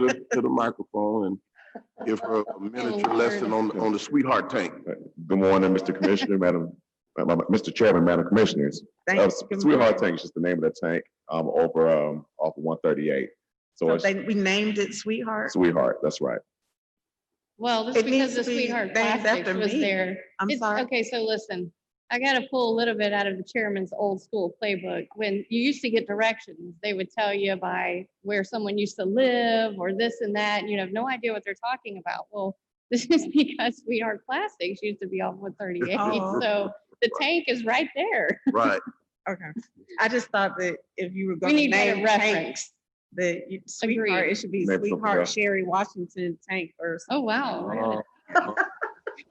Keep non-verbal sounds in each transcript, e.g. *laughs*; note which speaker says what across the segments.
Speaker 1: to the, to the microphone and give her a miniature lesson on, on the sweetheart tank.
Speaker 2: Good morning, Mr. Commissioner, Madam, uh, Mr. Chairman, Madam Commissioners. Uh,
Speaker 3: Thanks.
Speaker 2: Sweetheart Tank is just the name of the tank, um, over, um, off of one thirty-eight. So
Speaker 3: So
Speaker 2: it's
Speaker 3: Oh, they, we named it Sweetheart.
Speaker 2: Sweetheart, that's right.
Speaker 4: Well,
Speaker 3: It
Speaker 4: that's
Speaker 3: needs
Speaker 4: because the
Speaker 3: to be
Speaker 4: sweetheart
Speaker 3: named
Speaker 4: plastic
Speaker 3: after
Speaker 4: was
Speaker 3: me.
Speaker 4: there.
Speaker 3: I'm
Speaker 4: It's-
Speaker 3: sorry.
Speaker 4: Okay, so listen, I gotta pull a little bit out of the chairman's old school playbook. When you used to get directions, they would tell you by where someone used to live or this and that, and you'd have no idea what they're talking about. Well, *laughs* this is because sweetheart plastics used to be off one thirty-eight,
Speaker 3: Oh.
Speaker 4: so the tank is right
Speaker 3: *laughs*
Speaker 4: there.
Speaker 1: Right.
Speaker 3: Okay. I just thought that if you were
Speaker 4: We
Speaker 3: going to
Speaker 4: need better
Speaker 3: name tanks,
Speaker 4: reference.
Speaker 3: that you- Sweetheart, it should be
Speaker 2: Maybe something
Speaker 3: Sweetheart
Speaker 2: else.
Speaker 3: Sherry Washington Tank or
Speaker 4: Oh,
Speaker 3: something.
Speaker 4: wow. look at
Speaker 1: Uh,
Speaker 4: that.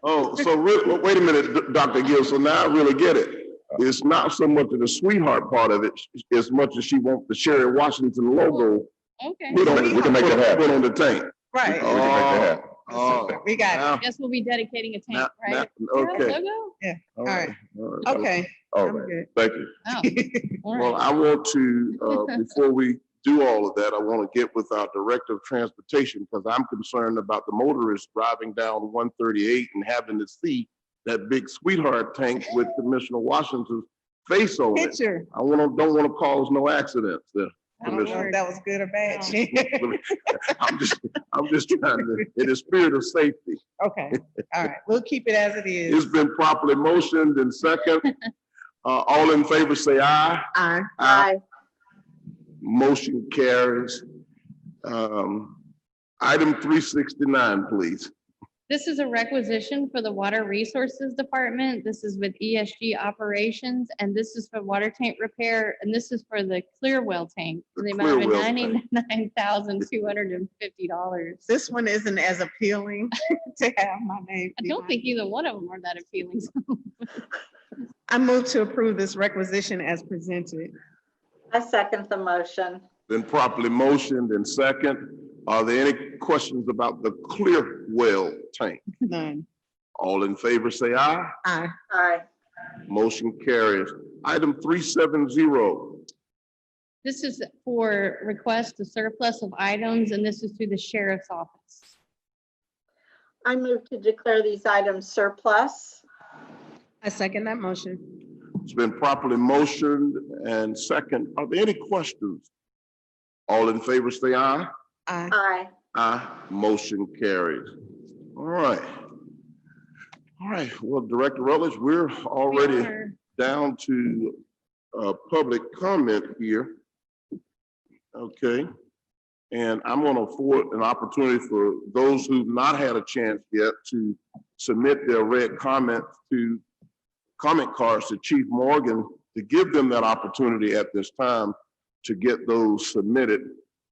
Speaker 1: Oh, so re- well, wait a minute, Dr. Gill, so now I really get it. It's not so much of the sweetheart part of it, as much as she wants the Sherry Washington logo.
Speaker 4: Okay,
Speaker 1: put on-
Speaker 2: We can make that happen.
Speaker 1: Put on the tank.
Speaker 2: We
Speaker 3: Right.
Speaker 2: can make that happen.
Speaker 1: Oh,
Speaker 3: We got
Speaker 1: now-
Speaker 4: guess we'll be dedicating a
Speaker 1: now-
Speaker 4: tank, right?
Speaker 1: now-
Speaker 4: Is there a
Speaker 1: Okay.
Speaker 4: logo?
Speaker 1: All
Speaker 3: right.
Speaker 1: all
Speaker 3: it. Okay,
Speaker 2: All
Speaker 3: I'm
Speaker 2: right,
Speaker 3: good.
Speaker 2: Oh. thank you. *laughs*
Speaker 4: Oh, all right.
Speaker 1: Well, I want to, uh, before we do all of that, I want to get with our Director of Transportation because I'm concerned about the motorists driving down one thirty-eight and having to see that big sweetheart tank with Commissioner Washington's face on it.
Speaker 3: Picture.
Speaker 1: I want to, don't want to cause no accidents. there.
Speaker 3: I don't know
Speaker 1: Commissioner.
Speaker 3: if that was good or bad.
Speaker 1: I'm just, I'm just trying to, in the spirit of safety.
Speaker 4: Oh.
Speaker 3: *laughs* Okay, all right. We'll keep it as it
Speaker 1: It's
Speaker 3: is.
Speaker 1: been properly motioned and second. Uh, all in favor, say aye.
Speaker 3: Aye.
Speaker 1: Aye. Motion carries. Um, item three sixty-nine, please.
Speaker 4: This is a requisition for the Water Resources Department. This is with ESG Operations, and this is for water tank repair, and this is for the clear well tank.
Speaker 1: The
Speaker 4: in The amount of
Speaker 1: clear well tank.
Speaker 4: ninety-nine thousand two hundred and fifty dollars.
Speaker 3: This one isn't as appealing *laughs* to have my name.
Speaker 4: I
Speaker 3: be
Speaker 4: don't
Speaker 3: on
Speaker 4: think either one of them are that appealing.
Speaker 3: I move to approve this requisition as presented.
Speaker 5: I second the motion.
Speaker 1: Been properly motioned and second. Are there any questions about the clear well tank?
Speaker 3: None.
Speaker 1: All in favor, say aye.
Speaker 3: Aye.
Speaker 5: Aye.
Speaker 1: Motion carries. Item three seven zero.
Speaker 4: This is for request to surplus of items, and this is through the sheriff's office.
Speaker 5: I move to declare these items surplus.
Speaker 3: I second that motion.
Speaker 1: It's been properly motioned and second. Are there any questions? All in favor, say aye.
Speaker 3: Aye.
Speaker 5: Aye.
Speaker 1: Aye, motion carries. All right. All right, well, Director Rutledge, we're
Speaker 4: We
Speaker 1: already
Speaker 4: are-
Speaker 1: down to uh, public comment here. Okay, and I'm going to afford an opportunity for those who've not had a chance yet to submit their red comments to comment cards to Chief Morgan to give them that opportunity at this time to get those submitted.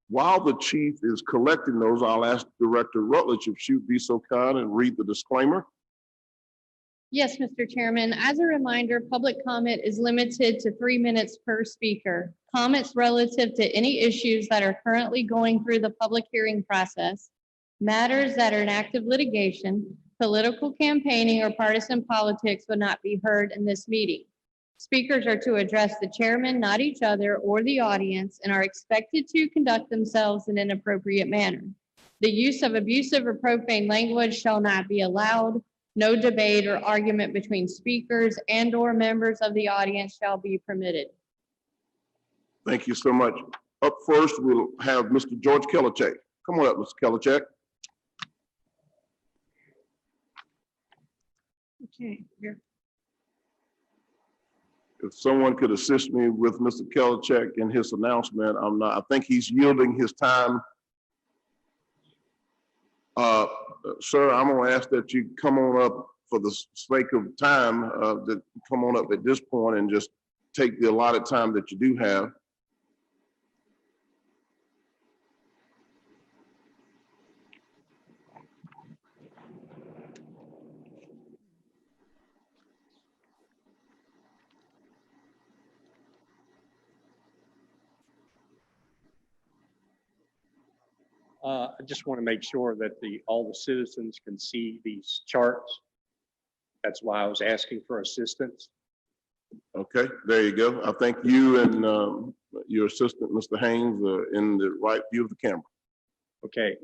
Speaker 1: While the chief is collecting those, I'll ask Director Rutledge if she would be so kind and read the disclaimer.
Speaker 4: Yes, Mr. Chairman. As a reminder, public comment is limited to three minutes per speaker. Comments relative to any issues that are currently going through the public hearing process, matters that are in active litigation, political campaigning, or partisan politics would not be heard in this meeting. Speakers are to address the chairman, not each other or the audience, and are expected to conduct themselves in an appropriate manner. The use of abusive or profane language shall not be allowed. No debate or argument between speakers and/or members of the audience shall be permitted.
Speaker 1: Thank you so much. Up first, we'll have Mr. George Kelicak. Come on up, Mr. Kelicak.
Speaker 3: Okay, here.
Speaker 1: If someone could assist me with Mr. Kelicak in his announcement, I'm not, I think he's yielding his time. Uh, sir, I'm gonna ask that you come on up for the sake of time, uh, that come on up at this point and just take the allotted time that you do have.
Speaker 6: Uh, I just want to make sure that the, all the citizens can see these charts. That's why I was asking for assistance.
Speaker 1: Okay, there you go. I think uh, you and um, your assistant, Mr. Haynes, are in the right view of the camera.
Speaker 2: Okay,